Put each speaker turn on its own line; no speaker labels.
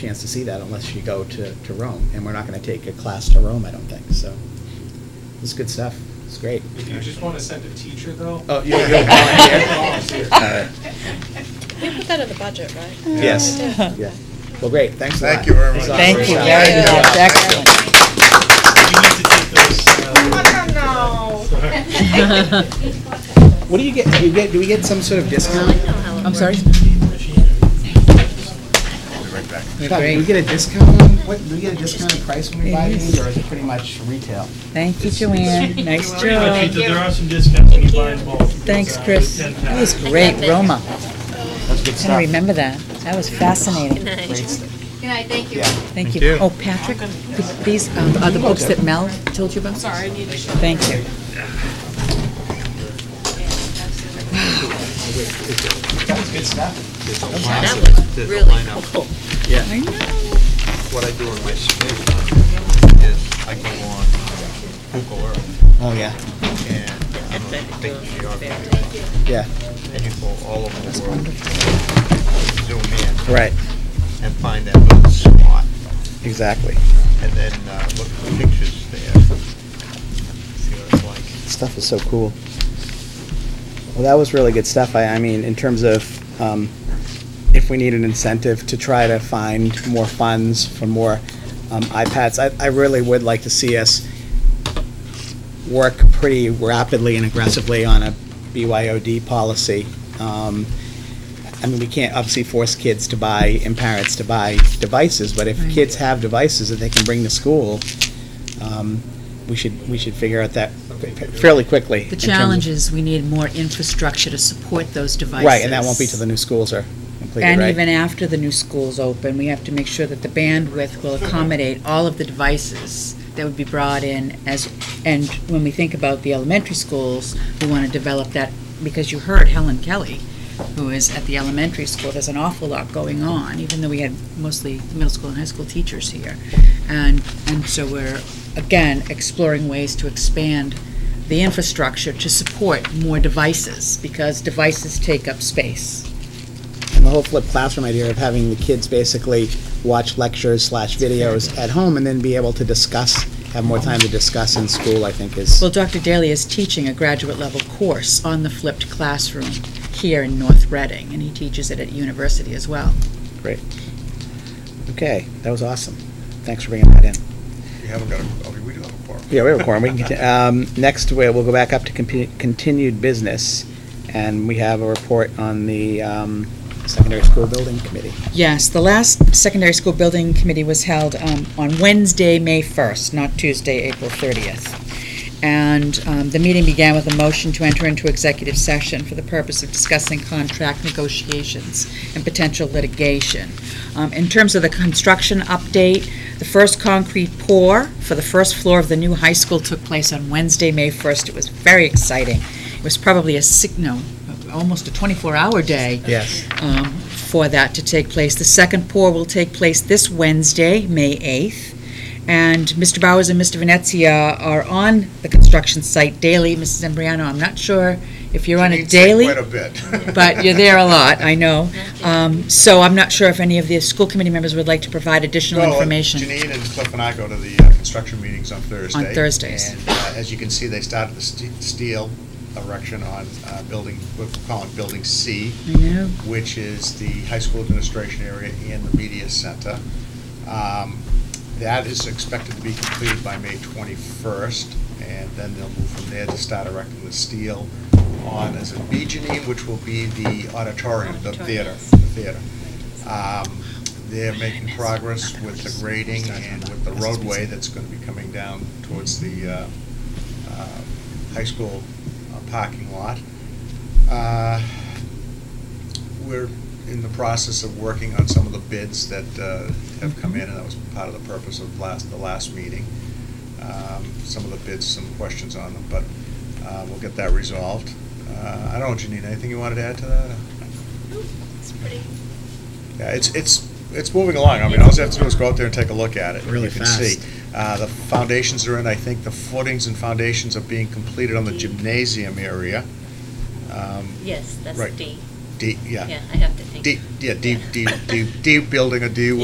chance to see that unless you go to, to Rome, and we're not going to take a class to Rome, I don't think, so. It's good stuff, it's great.
If you just want to send a teacher, though.
Oh, you- you'll volunteer?
Volunteer.
All right.
We put that in the budget, right?
Yes. Yeah. Well, great, thanks a lot.
Thank you very much.
Thanks a lot. Great
Thank you very
job.
much,
Yeah.
excellent.
You need to take those, uh,
No.
What do you get, do you get, do we get some sort of discount?
I'm sorry?
We'll be right back.
Todd, Do we get a discount on, what, do we get a discounted price when we buy these, or is it pretty much retail?
Thank you, Joanne. Nice
But
job.
you- There are some discounts when you buy in bulk.
Thanks,
Uh,
Chris.
ten
That was
packs.
great, Roma.
That's good
I'm gonna remember that. That was fascinating.
Great stuff.
Good night, thank you.
Yeah.
Thank you. Oh, Patrick, th- these um, are the books that Mel told you about? Sorry, I need to show. Thank you.
That was good stuff.
That was really cool.
I know.
What I do in my spare time is I go on Google Earth
Oh, yeah,
and I'm a big geography guy.
yeah,
And you go all over the world, zoom in
right,
and find that little spot
exactly.
and then uh, look at the pictures there. See what it's like.
stuff is so cool. Well, that was really good stuff. I, I mean, in terms of um, if we need an incentive to try to find more funds for more um, iPads, I, I really would like to see us work pretty rapidly and aggressively on a BYOD policy. Um, I mean, we can't obviously force kids to buy and parents to buy devices, but if
Right.
kids have devices that they can bring to school, um, we should, we should figure out that fairly quickly.
The
in terms of-
challenge is we need more infrastructure to support those devices.
Right, and that won't be till the new schools are completed, right?
And even after the new school's open, we have to make sure that the bandwidth will accommodate all of the devices that would be brought in as, and when we think about the elementary schools, we want to develop that, because you heard Helen Kelly, who is at the elementary school, there's an awful lot going on, even though we had mostly middle school and high school teachers here. And, and so we're, again, exploring ways to expand the infrastructure to support more devices, because devices take up space.
And the whole flipped classroom idea of having the kids basically watch lectures slash videos at home and then be able to discuss, have more time to discuss in school, I think is,
Well, Dr. Daly is teaching a graduate level course on the flipped classroom here in North Reading, and he teaches it at university as well.
okay, that was awesome. Thanks for bringing that in.
We haven't got a, okay, we do have a park.
Yeah, we have a quorum, we can, conti- um, next, we- we'll go back up to compu- continued business, and we have a report on the um, secondary school building committee.
Yes, the last secondary school building committee was held um, on Wednesday, May 1st, not Tuesday, April 30th. And um, the meeting began with a motion to enter into executive session for the purpose of discussing contract negotiations and potential litigation. Um, In terms of the construction update, the first concrete pour for the first floor of the new high school took place on Wednesday, May 1st. It was very exciting. It was probably a, sig- no, almost a 24-hour day
Yes.
um, for that to take place. The second pour will take place this Wednesday, May 8th. And Mr. Bowers and Mr. Venezia are on the construction site daily. Mrs. Embriano, I'm not sure if you're on a
It's like
daily
Quite a bit.
but you're there a lot, I know. Um, So I'm not sure if any of the school committee members would like to provide additional
Well,
information.
uh, Janine and Cliff and I go to the uh, construction meetings on Thursday.
Thursdays.
And uh, as you can see, they started the ste- steel erection on uh, building, we're calling Building C,
I know.
which is the high school administration area and the media center. Um, That is expected to be completed by May 21st, and then they'll move from there to start erecting the steel on as a B Janine, which will be the auditorium, the theater, the theater. Um, They're making progress with the grading and with the roadway that's going to be coming down towards the uh, uh, high school uh, parking lot. Uh, We're in the process of working on some of the bids that uh, have come in, and that was part of the purpose of last, the last meeting. Um, Some of the bids, some questions on them, but uh, we'll get that resolved. Uh, I don't know, Janine, anything you wanted to add to that?
It's pretty
Yeah, it's, it's, it's moving along. I mean, all you have to do is go out there and take a look at it. and
Really
you can
fast.
see. Uh, The foundations are in, I think the footings and foundations are being completed on the gymnasium area. Um,
Yes, that's
Right.
D.
D, yeah.
Yeah, I have to think.
D, yeah, D, D, D, D building or D